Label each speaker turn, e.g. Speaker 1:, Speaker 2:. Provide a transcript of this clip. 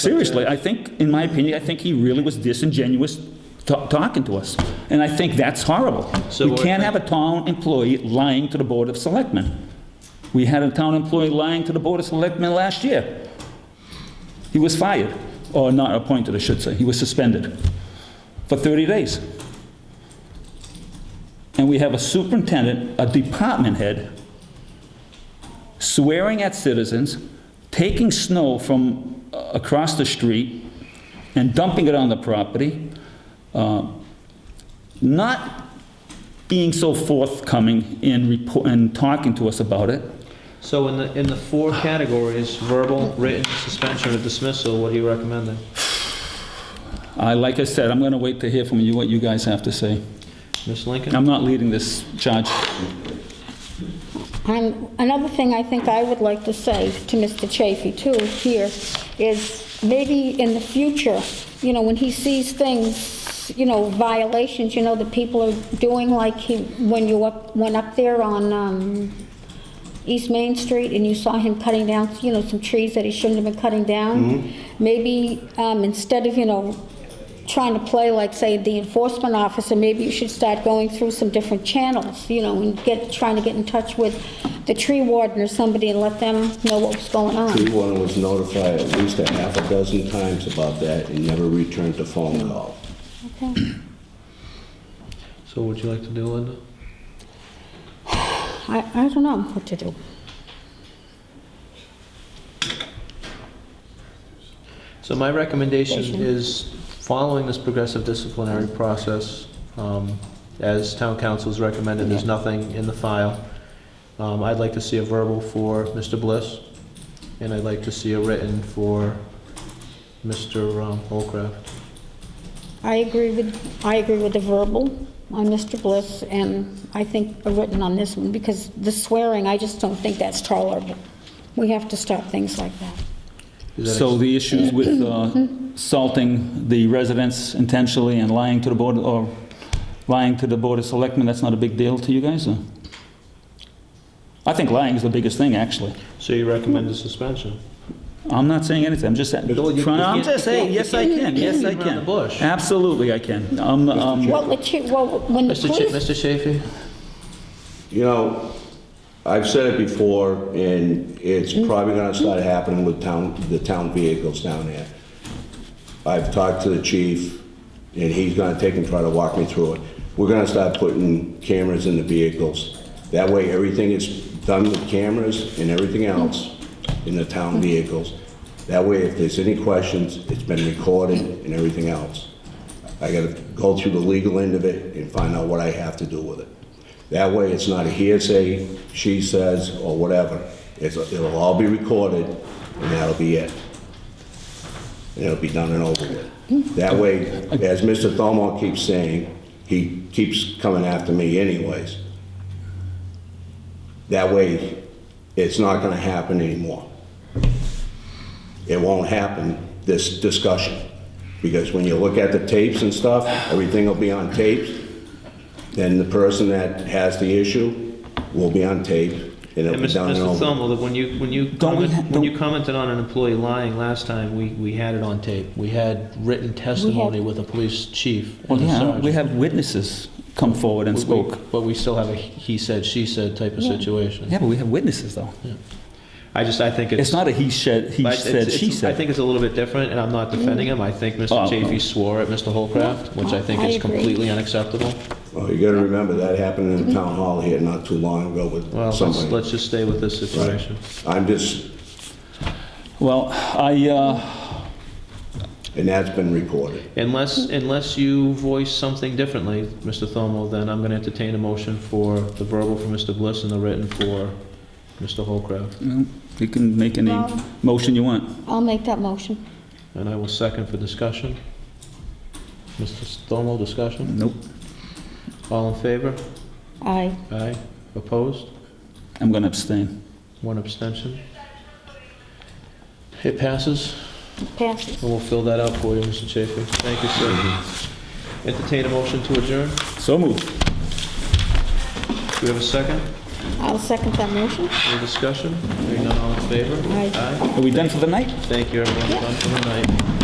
Speaker 1: Seriously,
Speaker 2: uh,
Speaker 1: I think, in my opinion, I think he really was disingenuous ta- talking to us. And I think that's horrible.
Speaker 2: So
Speaker 1: We
Speaker 2: what-
Speaker 1: can't have a town employee lying to the Board of Selectmen. We had a town employee lying to the Board of Selectmen last year. He was fired, or not appointed, I should say. He was suspended for 30 days. And we have a superintendent, a department head, swearing at citizens, taking snow from uh, across the street and dumping it on the property, uh, not being so forthcoming in report, in talking to us about it.
Speaker 2: So in the, in the four categories, verbal, written, suspension, or dismissal, what are you recommending?
Speaker 1: I, like I said, I'm going to wait to hear from you what you guys have to say.
Speaker 2: Ms. Lincoln?
Speaker 1: I'm not leading this charge.
Speaker 3: And another thing I think I would like to say to Mr. Chafee too here is maybe in the future, you know, when he sees things, you know, violations, you know, that people are doing like he, when you up, went up there on, um, East Main Street and you saw him cutting down, you know, some trees that he shouldn't have been cutting down. Maybe, um, instead of, you know, trying to play like, say, the enforcement officer, maybe you should start going through some different channels, you know, and get, trying to get in touch with the tree warden or somebody and let them know what was going
Speaker 4: Tree
Speaker 3: on.
Speaker 4: warden was notified at least a half a dozen times about that and never returned the phone at all.
Speaker 2: So what would you like to do, Linda?
Speaker 3: I, I don't know what to do.
Speaker 2: So my recommendation is following this progressive disciplinary process, um, as town council's recommended, there's nothing in the file. Um, I'd like to see a verbal for Mr. Bliss, and I'd like to see a written for Mr. um, Holcraft.
Speaker 3: I agree with, I agree with the verbal on Mr. Bliss, and I think a written on this one, because the swearing, I just don't think that's tolerable. We have to stop things like that.
Speaker 2: Is that
Speaker 1: So the issues with uh, salting the residents intentionally and lying to the board, or lying to the Board of Selectmen, that's not a big deal to you guys, or? I think lying is the biggest thing, actually.
Speaker 2: ex- So you recommend a suspension?
Speaker 1: I'm not saying anything, I'm just
Speaker 2: Bill,
Speaker 1: trying,
Speaker 2: you- you
Speaker 1: I'm
Speaker 2: can't-
Speaker 1: just saying, yes, I can, yes, I
Speaker 2: Beating around
Speaker 1: can.
Speaker 2: the bush.
Speaker 1: Absolutely, I can. Um, I'm, I'm-
Speaker 3: Well, the chi- well, when the
Speaker 2: Mr. Cha-
Speaker 3: police,
Speaker 2: Mr. Chafee?
Speaker 4: You know, I've said it before, and it's probably gonna start happening with town, the town vehicles down there. I've talked to the chief, and he's gonna take and try to walk me through it. We're gonna start putting cameras in the vehicles. That way, everything is done with cameras and everything else in the town vehicles. That way, if there's any questions, it's been recorded and everything else. I gotta go through the legal end of it and find out what I have to do with it. That way, it's not a hearsay, she says, or whatever. It's, it'll all be recorded, and that'll be it. And it'll be done and over with. That way, as Mr. Thomo keeps saying, he keeps coming after me anyways. That way, it's not gonna happen anymore. It won't happen, this discussion. Because when you look at the tapes and stuff, everything will be on tapes, then the person that has the issue will be on tape, and it'll
Speaker 2: And
Speaker 4: be
Speaker 2: Mr.
Speaker 4: done and
Speaker 2: Mr.
Speaker 4: over.
Speaker 2: Thomo, that when you, when you,
Speaker 1: Don't we
Speaker 2: comment-
Speaker 1: ha-
Speaker 2: when
Speaker 1: don't-
Speaker 2: you commented on an employee lying last time, we, we had it on tape. We had written testimony with a police chief
Speaker 1: well,
Speaker 2: and a
Speaker 1: yeah, we
Speaker 2: sergeant.
Speaker 1: have witnesses come forward and
Speaker 2: We-
Speaker 1: spoke.
Speaker 2: But we still have a he said, she said type of situation.
Speaker 1: Yeah, but we have witnesses, though.
Speaker 2: I just, I think it's.
Speaker 1: It's not a he said, he
Speaker 2: I- it's-
Speaker 1: said, she
Speaker 2: it's- I
Speaker 1: said.
Speaker 2: think it's a little bit different, and I'm not defending him. I think Mr.
Speaker 1: Oh, oh.
Speaker 2: Chafee swore at Mr. Holcraft, which I think
Speaker 3: I
Speaker 2: is
Speaker 3: agree.
Speaker 2: completely unacceptable.
Speaker 4: Well, Oh, you gotta remember, that happened in the town hall here not too long ago with
Speaker 2: Well, let's,
Speaker 4: somebody.
Speaker 2: let's just stay with this situation.
Speaker 4: I'm just,
Speaker 1: Well, I, uh,
Speaker 4: and that's been reported.
Speaker 2: Unless, unless you voice something differently, Mr. Thomo, then I'm gonna entertain a motion for the verbal for Mr. Bliss and the written for Mr. Holcraft.
Speaker 1: you can make any
Speaker 3: Well-
Speaker 1: motion you want.
Speaker 3: I'll make that motion.
Speaker 2: And I will second for discussion. Mr. Thomo, discussion?
Speaker 1: Nope,
Speaker 2: All in favor?
Speaker 3: Aye.
Speaker 2: Aye. Opposed?
Speaker 1: I'm going to abstain.
Speaker 2: One abstention? It passes,
Speaker 3: Passes.
Speaker 2: and we'll fill that out for you, Mr. Chafee. Thank you, sir. Entertain a motion to adjourn.
Speaker 1: So moved.
Speaker 2: Do we have a second?
Speaker 3: I'll second that motion.
Speaker 2: Any discussion? Hearing none, all in favor?
Speaker 3: Aye.
Speaker 1: Are we done for the night?
Speaker 2: Thank you, everyone, for coming tonight.